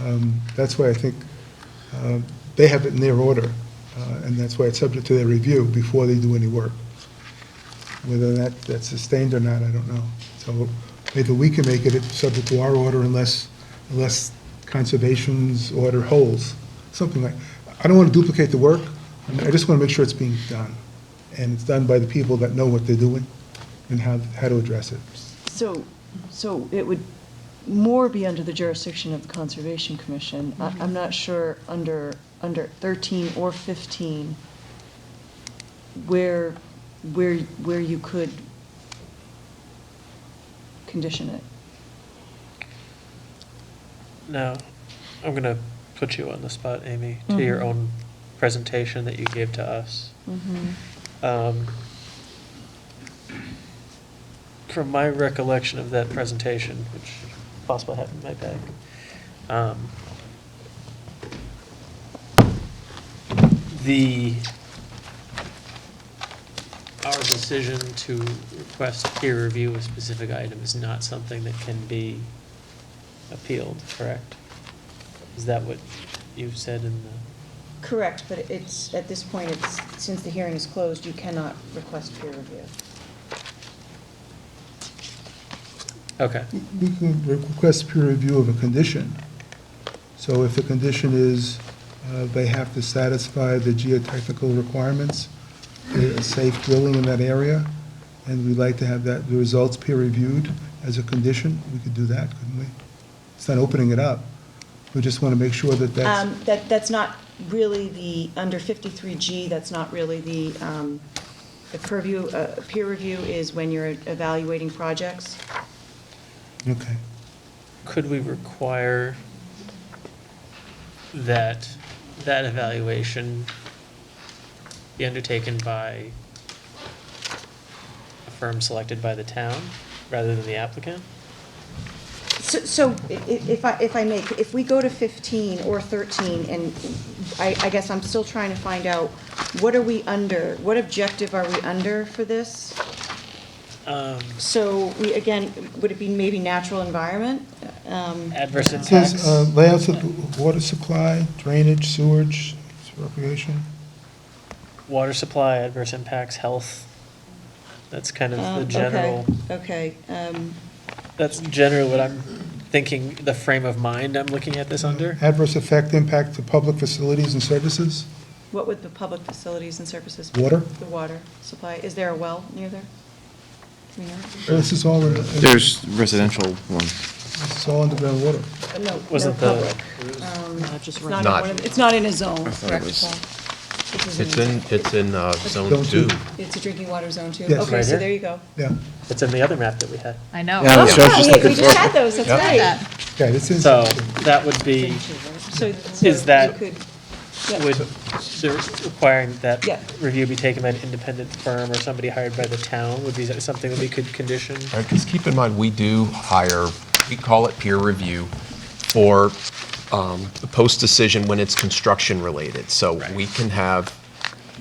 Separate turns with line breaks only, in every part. Um, That's why I think uh, they have it in their order, uh, and that's why it's subject to their review before they do any work. Whether that, that's sustained or not, I don't know. So maybe we can make it subject to our order unless, unless Conservation's order holds, something like, I don't want to duplicate the work, I mean, I just want to make sure it's being done, and it's done by the people that know what they're doing and how, how to address it.
So, so it would more be under the jurisdiction of the Conservation Commission. I- I'm not sure under, under 13 or 15 where, where, where you could condition it.
Now, I'm going to put you on the spot, Amy, to your
Mhm.
own presentation that you gave to us. Um, From my recollection of that presentation, which is possible I have in my bag, um, the, our decision to request peer review of a specific item is not something that can be appealed, correct? Is that what you said in the,
Correct, but it's, at this point, it's, since the hearing is closed, you cannot request peer review.
okay,
We can request peer review of a condition. So if the condition is uh, they have to satisfy the geotechnical requirements, uh, safe drilling in that area, and we'd like to have that, the results peer reviewed as a condition, we could do that, couldn't we? It's not opening it up. We just want to make sure that that's,
Um, That, that's not really the, under 53G, that's not really the, um, the purview, uh, peer review is when you're evaluating projects.
okay.
could we require that, that evaluation be undertaken by a firm selected by the town rather than the applicant?
So, so i- i- if I, if I make, if we go to 15 or 13, and I, I guess I'm still trying to find out, what are we under? What objective are we under for this?
Um,
So we, again, would it be maybe natural environment? Um,
Adverse
It says
impacts,
uh, layouts of water supply, drainage, sewage, recreation.
water supply, adverse impacts, health. That's kind of
um,
the
okay,
general,
Okay, um,
that's generally what I'm thinking, the frame of mind I'm looking at this under.
Adverse effect impact to public facilities and services,
what would the public facilities and services? be?
water.
The water supply, is there a well near there? Do we know?
This is all in, this
There's residential ones.
is all underground water.
No, no
Wasn't the,
public. Um,
just
It's not in
Not-
one of, the-
It's not in a zone.
I thought it was-
this is
It's in, it's in uh,
Zone
zone
two.
two.
It's a drinking water zone too?
Yes.
Okay,
Right
so
here?
there you go.
Yeah,
it's in the other map that we had.
I know.
Yeah, I was
Oh,
just
yeah,
looking
We just
for,
had those, that's
Yep.
right.
yeah, it's in.
So that would be,
So. so
Is that-
you could-
would, they're requiring that
Yeah.
review be taken by an independent firm or somebody hired by the town, would be something that we could condition?
Because keep in mind, we do hire, we call it peer review for um, the post-decision when it's construction-related. So we can have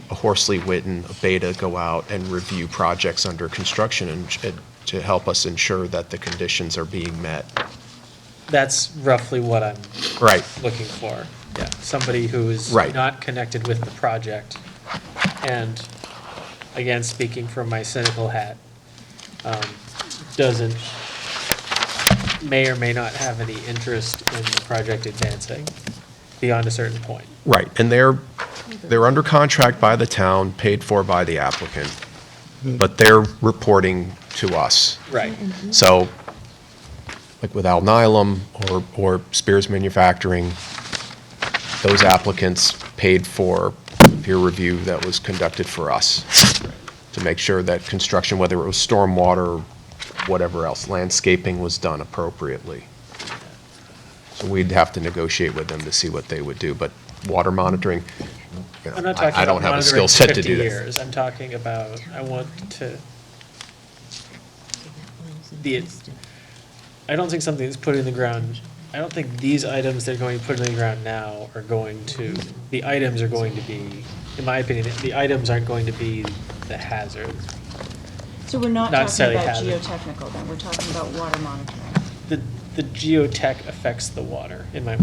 a Horsley Witten, a Beta go out and review projects under construction and and to help us ensure that the conditions are being met.
That's roughly what I'm
Right.
looking for. Yeah, somebody who is
Right.
not connected with the project. And again, speaking from my cynical hat, um, doesn't, may or may not have any interest in the project advancing beyond a certain point.
Right, and they're, they're under contract by the town, paid for by the applicant, but they're reporting to us.
Right.
So, like with Alnylam or, or Spears Manufacturing, those applicants paid for peer review that was conducted for us to make sure that construction, whether it was stormwater, or whatever else, landscaping was done appropriately. So we'd have to negotiate with them to see what they would do, but water monitoring, you know,
I'm not
I-
talking
I don't have
about
a
monitoring
skill
for
set to
50
do that.
years. I'm talking about, I want to, the, I don't think something that's put in the ground, I don't think these items that are going to put in the ground now are going to, the items are going to be, in my opinion, the items aren't going to be the hazard.
So we're not
Not
talking
necessarily
about
hazard.
geotechnical then, we're talking about water monitoring.
The, the geotech affects the water, in my